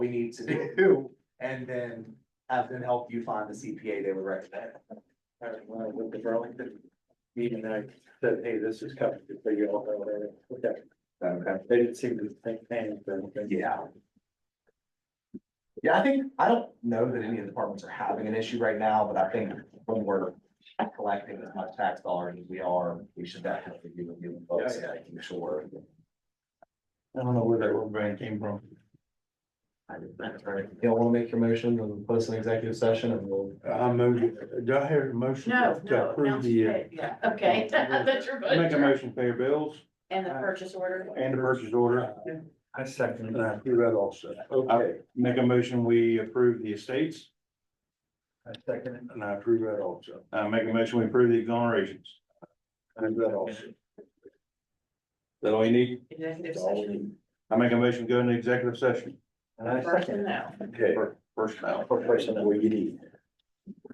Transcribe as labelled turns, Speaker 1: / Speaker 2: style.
Speaker 1: we need to do, and then have them help you find the CPA they would recommend. Uh, well, With the Burlington meeting, I said, hey, this is coming, to figure out, uh, okay,
Speaker 2: Okay.
Speaker 1: they didn't seem to think, man, yeah.
Speaker 2: Yeah, I think, I don't know that any of the departments are having an issue right now, but I think when we're collecting as much tax dollars as we are, we should definitely be reviewing folks and making sure.
Speaker 3: I don't know where that one brand came from.
Speaker 2: Y'all wanna make your motion and post an executive session and we'll.
Speaker 3: I moved, do I hear a motion
Speaker 4: No,
Speaker 3: to
Speaker 4: no,
Speaker 3: approve
Speaker 4: announce
Speaker 3: the? uh,
Speaker 4: pay, yeah, okay, that's your
Speaker 3: I Make a
Speaker 4: budget,
Speaker 3: motion to pay your bills
Speaker 4: and the purchase order.
Speaker 3: and the purchase order,
Speaker 2: I second.
Speaker 3: and I approve that also. Okay. Make a motion, we approve the estates,
Speaker 2: I second.
Speaker 3: and I approve that also. I make a motion, we approve the exonerations. I approve that also. Is That all you need?
Speaker 4: Executive session.
Speaker 3: I make a motion, go into executive session.
Speaker 2: And I
Speaker 4: Personnel.
Speaker 3: Okay. Personnel.
Speaker 2: For personnel.
Speaker 3: What you need.